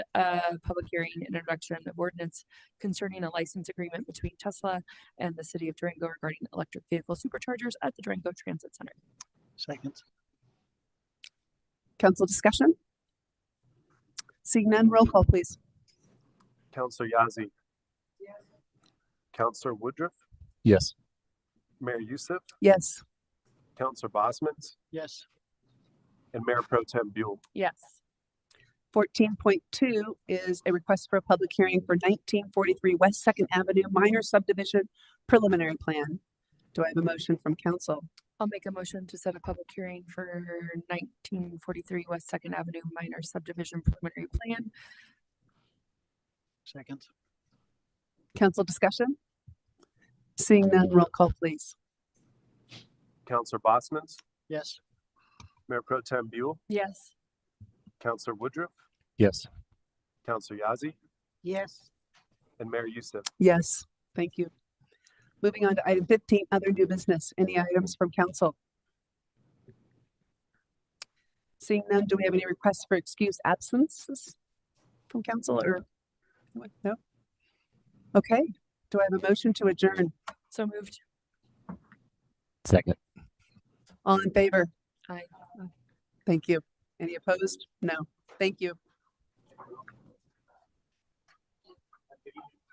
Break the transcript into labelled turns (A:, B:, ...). A: a public hearing and introduction of ordinance concerning a license agreement between Tesla and the city of Durango regarding electric vehicle superchargers at the Durango Transit Center.
B: Second.
C: Council discussion? Seeing none, roll call, please.
D: Counselor Yazzie. Counselor Woodruff,
E: Yes.
D: Mayor Youssef,
C: Yes.
D: Counselor Bosman's,
B: Yes.
D: and Mayor Pro Tem Buell.
A: Yes.
C: Fourteen point two is a request for a public hearing for nineteen forty-three West Second Avenue minor subdivision preliminary plan. Do I have a motion from council?
A: I'll make a motion to set a public hearing for nineteen forty-three West Second Avenue Minor Subdivision Preliminary Plan.
B: Second.
C: Council discussion? Seeing none, roll call, please.
D: Counselor Bosman's,
B: Yes.
D: Mayor Pro Tem Buell,
A: Yes.
D: Counselor Woodruff,
E: Yes.
D: Counselor Yazzie,
B: Yes.
D: and Mayor Youssef.
C: Yes, thank you. Moving on to item fifteen, other new business. Any items from council? Seeing none, do we have any requests for excuse absences from council or? anyone? No? Okay, do I have a motion to adjourn?
A: So moved.
E: Second.
C: All in favor?
A: Aye.
C: Thank you. Any opposed? No. Thank you.